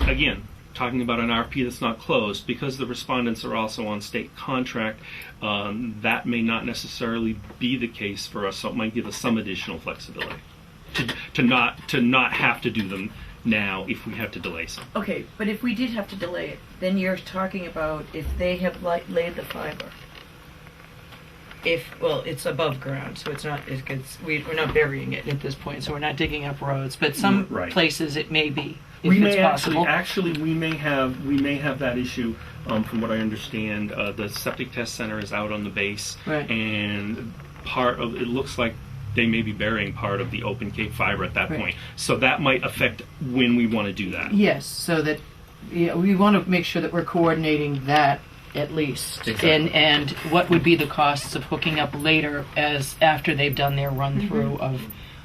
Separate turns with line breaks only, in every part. again, talking about an RFP that's not closed, because the respondents are also on state contract, um, that may not necessarily be the case for us, so it might give us some additional flexibility to, to not, to not have to do them now if we have to delay some.
Okay, but if we did have to delay it, then you're talking about if they have li- laid the fiber.
If, well, it's above ground, so it's not, it gets, we, we're not burying it at this point, so we're not digging up roads, but some
Mm, Right.
places it may be,
we
if it's
may
possible.
actually actually we may have we may have that issue um, from what I understand. Uh, the septic test center is out on the base,
Right.
and part of it looks like they may be burying part of the open cape fiber at that
Right.
point. So that might affect when we want to do that.
Yes, so that, yeah, we want to make sure that we're coordinating that at least.
Exactly.
And, and what would be the costs of hooking up later as, after they've done their run-through of,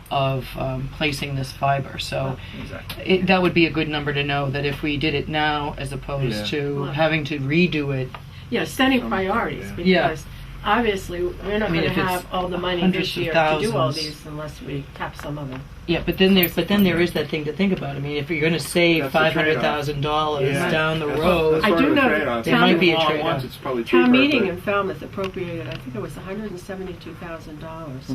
of um, placing this fiber, so.
Exactly.
It, that would be a good number to know, that if we did it now, as opposed
Yeah.
to
Right.
having to redo it,
Yeah, setting priorities,
Yeah.
because obviously, we're not
I mean,
gonna
if it's
have all the money
hundreds
this
of
year to do all
thousands.
these unless we tap some of it.
Yeah, but then there, but then there is that thing to think about. I mean, if you're going to save
That's the
five
trade-off.
hundred thousand dollars
Yeah.
down the
That's-
road,
that's
I
part
do
of the
know
trade-off.
there
If you
might be a
do it all at
trade-off.
once, It's probably cheaper.
Town meeting
but-
in Falmouth appropriated, I think it was hundred and seventy-two thousand dollars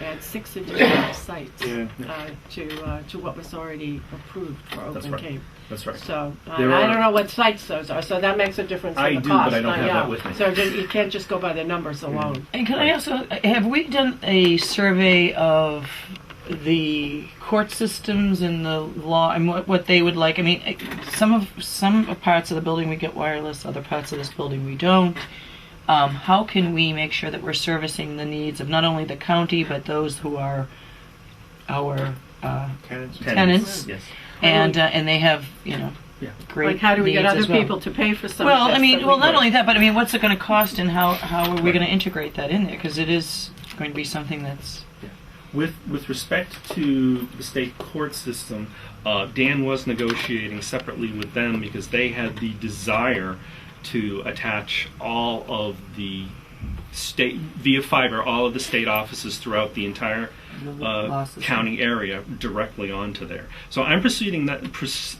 to add six additional sites
Yeah.
uh, to, uh, to what was already approved for
That's
Open
right.
Cape.
That's right.
So, uh,
There
I
are-
don't know what sites those are, so that makes a difference
I
in the
do, but
cost.
I don't
uh,
have that
yeah.
with me.
So ju- you can't just go by the numbers alone.
and can I also have we done a survey of the court systems and the law and what, what they would like? I mean, eh, some of some parts of the building we get wireless, other parts of this building we don't. Um, how can we make sure that we're servicing the needs of not only the county but those who are our uh,
Tenants.
tenants?
Yes.
and uh, and they have you know
Yeah.
great
Like, how do we get
needs
other
as well.
people to pay for some of
well
this
i
that
mean
we
well not
don't?
only that but i mean what's it going to cost and how how are we going to integrate that in there because it is going to be something that's
With with respect to the state court system, uh, Dan was negotiating separately with them because they had the desire to attach all of the state via fiber, all of the state offices throughout the entire uh,
Losses.
county area directly onto there. So I'm proceeding that. Pres-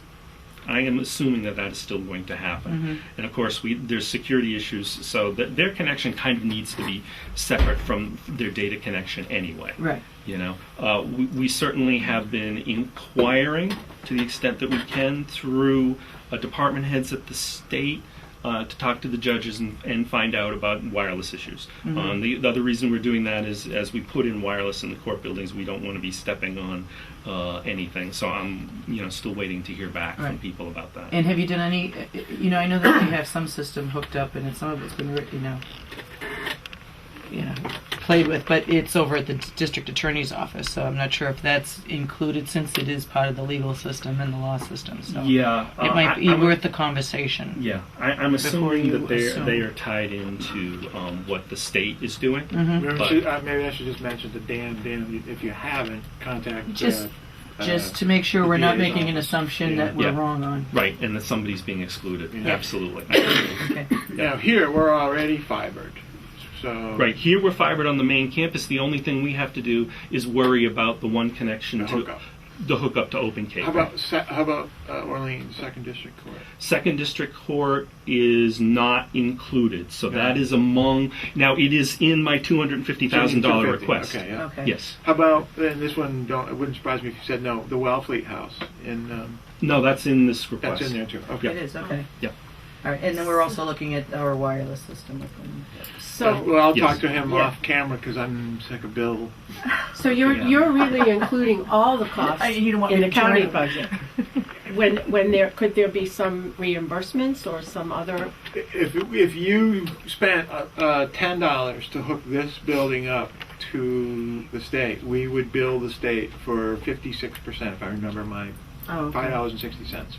I am assuming that that is still going to happen, and of course, we there's security issues, so that their connection kind of needs to be separate from their data connection anyway.
right
You know, uh, we, we certainly have been inquiring to the extent that we can through uh, department heads at the state uh, to talk to the judges and, and find out about wireless issues.
Mm-hmm.
Um, the, the other reason we're doing that is as we put in wireless in the court buildings, we don't want to be stepping on uh, anything. So I'm, you know, still waiting to hear back from
Right.
people about that.
and have you done any uh, you know i know that you have some system hooked up and some of it's been you know you know played with but it's over at the d- district attorney's office so i'm not sure if that's included since it is part of the legal system and the law system so
yeah,
it
uh,
might
I-
be
I would-
worth the conversation
Yeah, I, I'm assuming
you
that they
assume.
they are tied into um, what the state is doing.
Mm-hmm.
Maybe I
But-
should- uh, maybe I should just mention to Dan, Dan, if you haven't, contact.
Just-
uh,
just
uh,
to make sure
the
we're not
DA's
making an
office.
assumption
Yeah.
that we're
Yeah.
wrong on.
Right, and that somebody's being excluded.
Yeah.
Absolutely.
uh, Now, here, we're already fibered, so.
right, here we're fibered on the main campus. The only thing we have to do is worry about the one connection
The
to
hookup.
the hookup to Open Cape.
How about, se- how about uh, Orleans Second District Court?
Second District Court is not included, so that
Yeah.
is among. Now, it is in my $250,000
$250,000,
request.
Okay, yeah.
Okay.
Yes.
How about, and this one, don't, it wouldn't surprise me if you said no, the Wellfleet House in, um,
No, that's in this request.
that's in there too,
Yeah.
okay.
It is, okay.
Yeah.
All right, and then we're also looking at our wireless system. with them.
Uh,
So,
Well, I'll
Yes.
talk to him
Yeah.
off camera because I'm sick of Bill.
so you're,
Yeah.
you're really including all the costs
I- you don't want
in
me
the
to join
county
them.
budget. When, when there, could there be some reimbursements or some other,
If, if you spent uh, uh, $10 to hook this building up to the state, we would bill the state for 56%, if I remember my
oh, okay.
$5.60.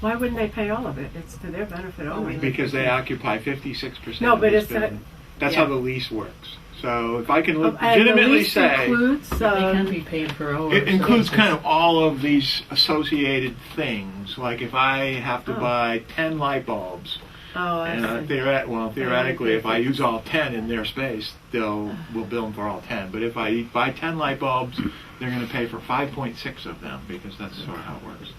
why wouldn't they pay all of it? It's to their benefit only.
Because they occupy 56%
No,
of
but
this
it's not-
building. That's how
yeah.
the lease works. So if I can
Oh, and the
legitimately
lease
say.
Includes,
They
um,
can be paid per hour.
It
so
includes
that's
kind of all of these associated things. Like if I have to
Oh.
buy 10 light bulbs,
oh,
and uh,
I see.
theoret- well, theoretically, if I
Okay.
use all 10 in their space, they'll we'll bill them for all 10. But if I buy 10 light bulbs, they're going to pay for 5.6 of them because that's sort of how it works.